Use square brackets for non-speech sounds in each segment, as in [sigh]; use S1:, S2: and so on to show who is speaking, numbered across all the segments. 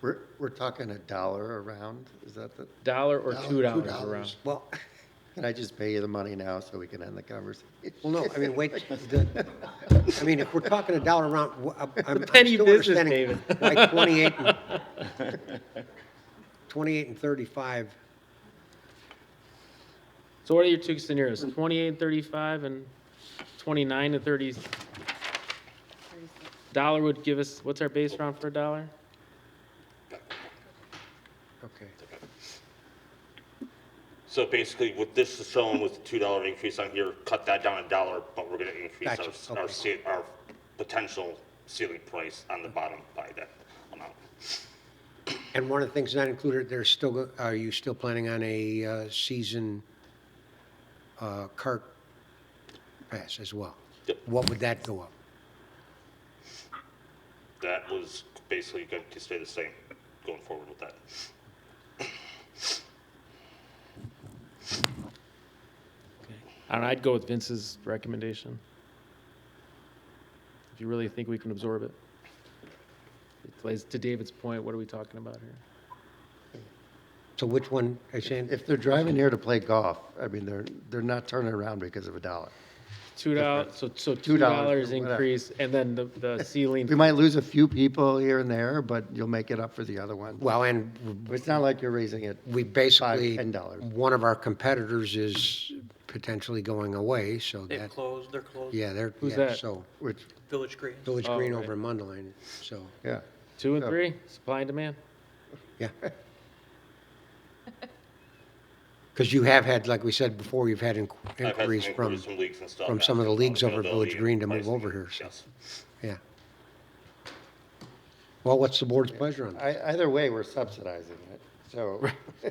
S1: We're, we're talking a dollar around, is that the?
S2: Dollar or
S1: dollar,
S2: two dollars around?
S1: Well, can I just pay you the money now so we can end the conversation?
S3: Well, no, I mean, wait, the, I mean, if we're talking a dollar amount, wh- I'm- I'm I'm
S2: Penny
S3: still
S2: business,
S3: understanding why twenty-eight and, twenty-eight and thirty-five,
S2: So what are your two scenarios? Twenty-eight and thirty-five and twenty-nine and thirty? Dollar would give us, what's our base round for a dollar?
S3: okay.
S4: So basically, what this is showing with the two dollar increase on here, cut that down a dollar, but we're gonna increase
S3: Gotcha,
S4: our, our,
S3: okay.
S4: ce- our potential ceiling price on the bottom by that amount.
S3: And one of the things not included, there's still, go- are you still planning on a uh, season uh, cart pass as well?
S4: Yep.
S3: What would that go up?
S4: That was basically going to stay the same going forward with that.
S2: I don't know, I'd go with Vince's recommendation. If you really think we can absorb it. It plays to David's point, what are we talking about here?
S3: So which one, I saying,
S1: If they're driving here to play golf, I mean, they're, they're not turning around because of a dollar.
S2: Two dollars, so, so two
S1: Two dollars,
S2: dollars
S1: whatever.
S2: increase and then the, the
S1: We
S2: ceiling,
S1: might lose a few people here and there, but you'll make it up for the other one.
S3: well, and
S1: It's not like you're raising it.
S3: we
S1: Five,
S3: basically,
S1: ten dollars.
S3: one of our competitors is potentially going away, so
S5: They've
S3: that,
S5: closed, they're closed.
S3: yeah, they're,
S2: Who's
S3: yeah,
S2: that?
S3: so,
S1: Which,
S5: Village Green.
S3: Village
S2: Oh,
S3: Green
S2: right.
S3: over in Mundelein, so,
S1: yeah.
S2: two and
S1: Yeah.
S2: three, supply and demand.
S1: [laughs]
S3: yeah. Because you have had, like we said before, you've had inqu-
S4: I've had some
S3: inquiries from,
S4: inquiries from leagues and stuff
S3: from some of the
S4: asking
S3: leagues
S4: about
S3: over at
S4: availability
S3: Village
S4: and
S3: Green to move
S4: pricing.
S3: over here, so.
S4: Yes.
S3: yeah. Well, what's the board's pleasure on that?
S1: I, either way, we're subsidizing it, so.
S5: [laughs]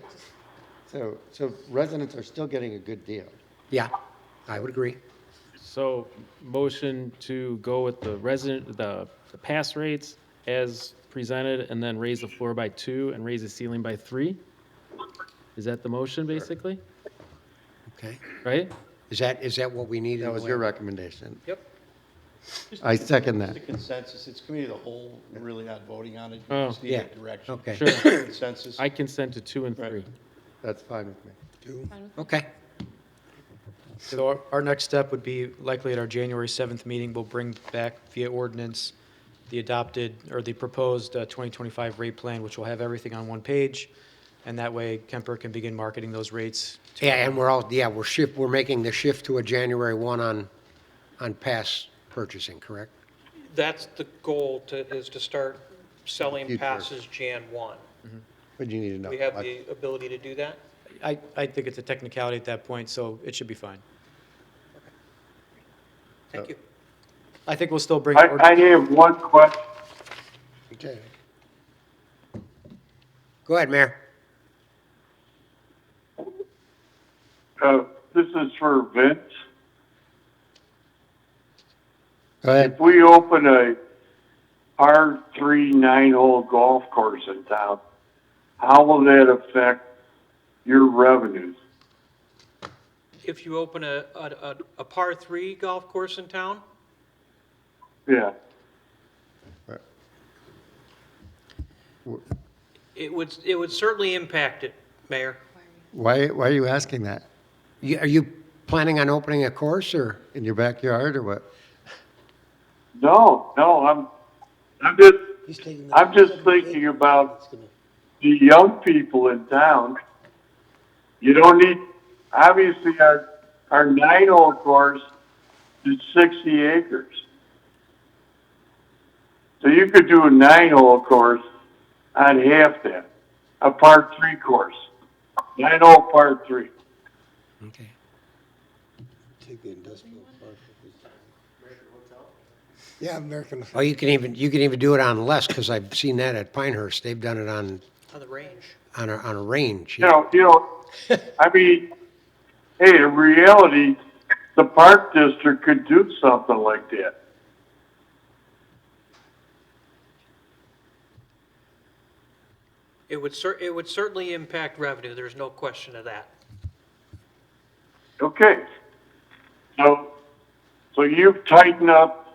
S1: So, so residents are still getting a good deal.
S3: Yeah, I would agree.
S2: So, motion to go with the resident, the, the pass rates as presented, and then raise the floor by two and raise the ceiling by three? Is that the motion, basically?
S3: Okay.
S2: Right?
S3: Is that, is that what we need? in
S1: That
S3: the
S1: was
S3: way-
S1: your recommendation.
S5: Yep.
S1: I second that.
S6: It's a consensus, it's committee of the whole, we're really not voting on it, you
S2: Oh.
S6: just need
S3: Yeah.
S6: a direction.
S3: Okay.
S2: Sure.
S6: Consensus,
S2: I consent to two and three.
S6: Right.
S1: That's fine with me.
S3: Okay.
S7: So our, our next step would be likely at our January 7th meeting, we'll bring back via ordinance the adopted, or the proposed uh, 2025 rate plan, which will have everything on one page. And that way Kemper can begin marketing those rates. to-
S3: Yeah, and we're all, yeah, we're shift, we're making the shift to a January 1 on, on pass purchasing, correct?
S5: That's the goal to, is to start selling
S1: Future.
S5: passes Jan 1.
S1: But you need to know.
S5: We have
S1: how much.
S5: the ability to do that?
S7: I, I think it's a technicality at that point, so it should be fine.
S5: Thank you.
S7: I think we'll still bring.
S8: I,
S7: ord-
S8: I have one question.
S3: Okay. Go ahead, Mayor.
S8: Uh, this is for Vince.
S1: Go ahead.
S8: If we open a R three nine hole golf course in town, how will that affect your revenues?
S5: If you open a, a, a- a par three golf course in town,
S8: Yeah.
S5: it would, it would certainly impact it, Mayor.
S1: Why, why are you asking that?
S3: You- Are you planning on opening a course, or?
S1: In your backyard or what?
S8: No, no, I'm, I'm just, I'm just thinking about the young people in town. You don't need, obviously, our, our nine hole course is sixty acres. So you could do a nine hole course on half that, a part three course, nine hole part three.
S3: Okay.
S9: Yeah, American.
S3: Oh, you can even, you can even do it on less, because I've seen that at Pinehurst. They've done it on,
S5: On the range.
S3: on a, on a range.
S8: you know, you know, I mean, hey, in reality, the park district could do something like that.
S5: It would cer, it would certainly impact revenue, there's no question of that.
S8: Okay. So, so you've tightened up